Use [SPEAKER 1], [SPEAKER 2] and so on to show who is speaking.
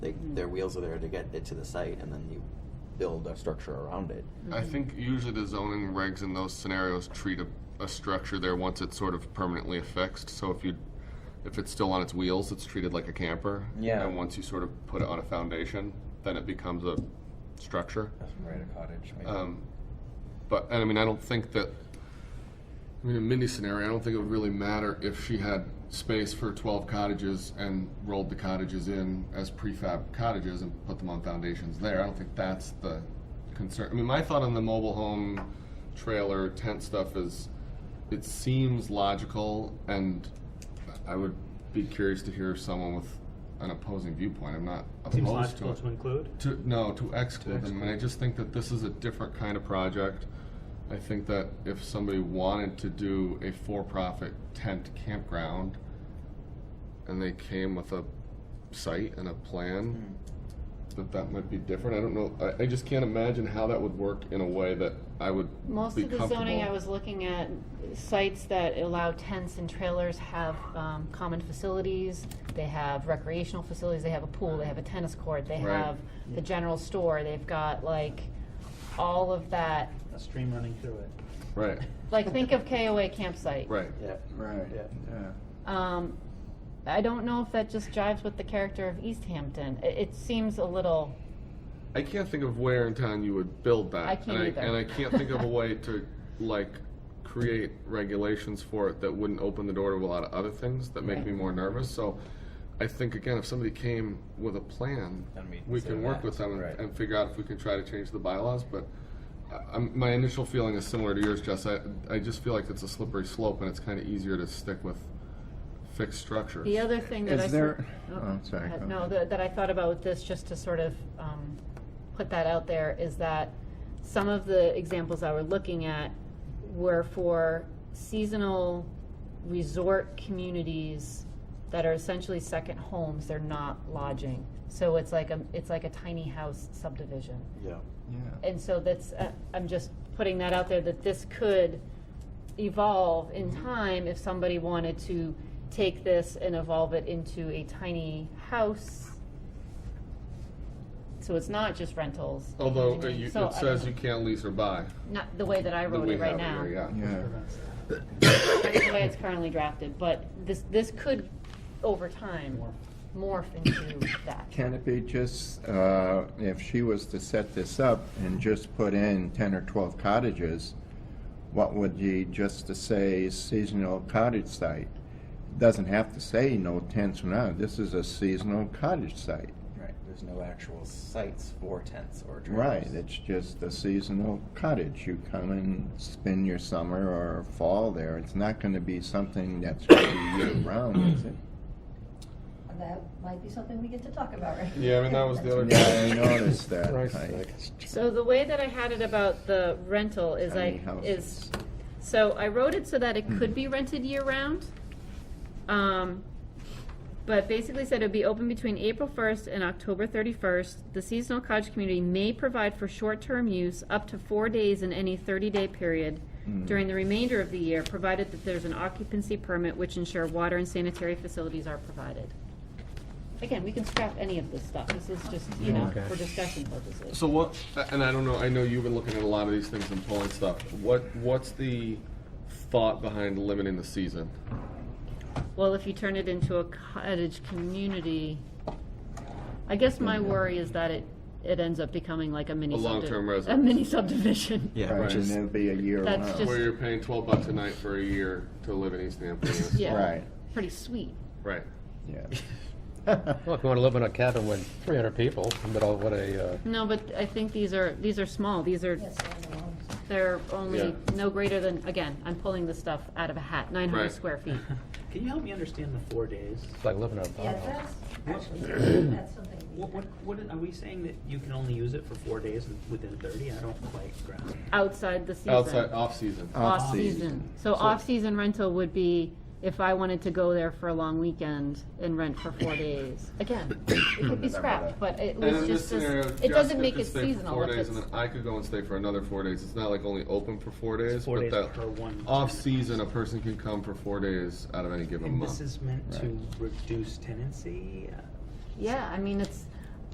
[SPEAKER 1] their wheels are there to get it to the site, and then you build a structure around it.
[SPEAKER 2] I think usually the zoning regs in those scenarios treat a, a structure there once it's sort of permanently affixed. So if you, if it's still on its wheels, it's treated like a camper.
[SPEAKER 1] Yeah.
[SPEAKER 2] And once you sort of put it on a foundation, then it becomes a structure.
[SPEAKER 3] Right, a cottage. Maybe.
[SPEAKER 2] Um, but and I mean, I don't think that. I mean, in Mindy's scenario, I don't think it would really matter if she had space for 12 cottages and rolled the cottages in as prefab cottages and put them on foundations there. I don't think that's the concern. I mean, my thought on the mobile home trailer tent stuff is it seems logical, and I would be curious to hear someone with an opposing viewpoint. I'm not opposed
[SPEAKER 4] Seems
[SPEAKER 2] to
[SPEAKER 4] logical
[SPEAKER 2] it.
[SPEAKER 4] to include.
[SPEAKER 2] To, no, to exclude them, and I just think that this is a different kind of project. I think that if somebody wanted to do a for-profit tent campground, and they came with a site and a plan, that that might be different, I don't know, I, I just can't imagine how that would work in a way that I would be
[SPEAKER 5] Most of the zoning I
[SPEAKER 2] comfortable.
[SPEAKER 5] was looking at, sites that allow tents and trailers have um, common facilities, they have recreational facilities, they have a pool, they have a tennis court, they
[SPEAKER 2] Right.
[SPEAKER 5] have the general store, they've got like all of that.
[SPEAKER 4] A stream running through it.
[SPEAKER 2] Right,
[SPEAKER 5] Like, think of KOA campsite.
[SPEAKER 2] right,
[SPEAKER 1] Yeah.
[SPEAKER 3] right.
[SPEAKER 1] Yeah.
[SPEAKER 3] yeah.
[SPEAKER 5] Um, I don't know if that just jives with the character of East Hampton. It, it seems a little,
[SPEAKER 2] I can't think of where in town you would build that.
[SPEAKER 5] I can't
[SPEAKER 2] and I,
[SPEAKER 5] either.
[SPEAKER 2] And I can't think of a way to like create regulations for it that wouldn't open the door to a lot of other things that make
[SPEAKER 5] Right.
[SPEAKER 2] me more nervous. So I think again, if somebody came with a plan,
[SPEAKER 3] And we
[SPEAKER 2] we
[SPEAKER 3] consider
[SPEAKER 2] can work
[SPEAKER 3] that,
[SPEAKER 2] with them and,
[SPEAKER 3] right.
[SPEAKER 2] and figure out if we can try to change the bylaws. But I, I'm, my initial feeling is similar to yours, Jess. I, I just feel like it's a slippery slope, and it's kind of easier to stick with fixed structures.
[SPEAKER 5] the other thing that I.
[SPEAKER 3] Is
[SPEAKER 5] s-
[SPEAKER 3] there-
[SPEAKER 5] Oh,
[SPEAKER 3] oh, sorry,
[SPEAKER 5] uh,
[SPEAKER 3] go
[SPEAKER 5] No,
[SPEAKER 3] ahead.
[SPEAKER 5] that, that I thought about with this, just to sort of, um, put that out there, is that some of the examples I were looking at were for seasonal resort communities that are essentially second homes, they're not lodging. So it's like a, it's like a tiny house subdivision.
[SPEAKER 1] Yeah.
[SPEAKER 3] Yeah.
[SPEAKER 5] And so that's, uh, I'm just putting that out there, that this could evolve in
[SPEAKER 2] Mm-hmm.
[SPEAKER 5] time if somebody wanted to take this and evolve it into a tiny house. So it's not just rentals.
[SPEAKER 2] Although uh, you,
[SPEAKER 5] So,
[SPEAKER 2] it
[SPEAKER 5] I
[SPEAKER 2] says you
[SPEAKER 5] don't-
[SPEAKER 2] can't lease or buy.
[SPEAKER 5] Not the way that I
[SPEAKER 2] that
[SPEAKER 5] wrote
[SPEAKER 2] we
[SPEAKER 5] it right
[SPEAKER 2] have
[SPEAKER 5] now.
[SPEAKER 2] here, yeah.
[SPEAKER 3] Yeah.
[SPEAKER 4] Prevents that.
[SPEAKER 5] The way it's currently drafted, but this, this could, over time, morph into that.
[SPEAKER 3] Can it be just, uh, if she was to set this up and just put in 10 or 12 cottages, what would you, just to say seasonal cottage site? Doesn't have to say no tents or none, this is a seasonal cottage site.
[SPEAKER 6] Right, there's no actual sites for tents or trailers.
[SPEAKER 3] Right, it's just a seasonal cottage, you come and spend your summer or fall there, it's not gonna be something that's gonna be year-round, is it?
[SPEAKER 7] That might be something we get to talk about, right?
[SPEAKER 2] Yeah, I mean, that was the other
[SPEAKER 3] Yeah, I noticed that. I-
[SPEAKER 5] So the way that I had it about the rental is
[SPEAKER 3] Tiny
[SPEAKER 5] I,
[SPEAKER 3] houses.
[SPEAKER 5] is, so I wrote it so that it could be rented year-round. Um, but basically said it would be open between April first and October thirty-first. The seasonal cottage community may provide for short-term use up to four days in any thirty-day period
[SPEAKER 3] Hmm.
[SPEAKER 5] during the remainder of the year, provided that there's an occupancy permit which ensure water and sanitary facilities are provided. Again, we can scrap any of this stuff. This is just, you know, for discussion purposes.
[SPEAKER 2] So what? And I don't know. I know you've been looking at a lot of these things and pulling stuff. What? What's the thought behind limiting the season?
[SPEAKER 5] Well, if you turn it into a cottage community, I guess my worry is that it, it ends up becoming like a mini.
[SPEAKER 2] A long-term
[SPEAKER 5] subdi-
[SPEAKER 2] residence.
[SPEAKER 5] A mini subdivision.
[SPEAKER 1] Yeah.
[SPEAKER 3] Right,
[SPEAKER 1] Which
[SPEAKER 3] and
[SPEAKER 1] is
[SPEAKER 3] it'll be a year-round.
[SPEAKER 5] That's just-
[SPEAKER 2] Where you're paying twelve bucks a night for a year to live in East Hampton. yes.
[SPEAKER 5] Yeah.
[SPEAKER 3] Right,
[SPEAKER 5] Pretty sweet.
[SPEAKER 2] Right.
[SPEAKER 3] yeah.
[SPEAKER 8] Well, if you want to live in a cabin with 300 people, but all- what a, uh,
[SPEAKER 5] No, but I think these are, these are small. These are,
[SPEAKER 7] Yes, I don't know.
[SPEAKER 4] Uh-huh.
[SPEAKER 5] they're only
[SPEAKER 2] Yeah.
[SPEAKER 5] no greater than, again, I'm pulling this stuff out of a hat, nine
[SPEAKER 2] Right.
[SPEAKER 5] hundred square feet.
[SPEAKER 4] Can you help me understand the four days?
[SPEAKER 8] it's like living in a
[SPEAKER 7] Yeah,
[SPEAKER 8] farmhouse.
[SPEAKER 7] that's, actually, that's something. we-
[SPEAKER 4] What, what, what, are we saying that you can only use it for four days and within thirty? I don't quite grasp.
[SPEAKER 5] Outside the season.
[SPEAKER 2] Outside off season.
[SPEAKER 8] Uh,
[SPEAKER 5] Off-season. So
[SPEAKER 4] So-
[SPEAKER 5] off-season rental would be if I wanted to go there for a long weekend and rent for four days. Again, it could be scrapped, but it
[SPEAKER 2] And in
[SPEAKER 5] was
[SPEAKER 2] this
[SPEAKER 5] just,
[SPEAKER 2] scenario,
[SPEAKER 5] this- it
[SPEAKER 2] Jessica
[SPEAKER 5] doesn't make
[SPEAKER 2] could
[SPEAKER 5] it
[SPEAKER 2] stay for
[SPEAKER 5] seasonal.
[SPEAKER 2] Four
[SPEAKER 5] if
[SPEAKER 2] days, and
[SPEAKER 5] it's-
[SPEAKER 2] then I could go and stay for another four days. It's not like only open for four days,
[SPEAKER 4] four
[SPEAKER 2] but
[SPEAKER 4] days
[SPEAKER 2] that
[SPEAKER 4] per one-
[SPEAKER 2] off season, a person can come for four days out of any given
[SPEAKER 4] And
[SPEAKER 2] month.
[SPEAKER 4] this is meant to reduce tenancy? Uh,
[SPEAKER 5] Yeah, I mean, it's,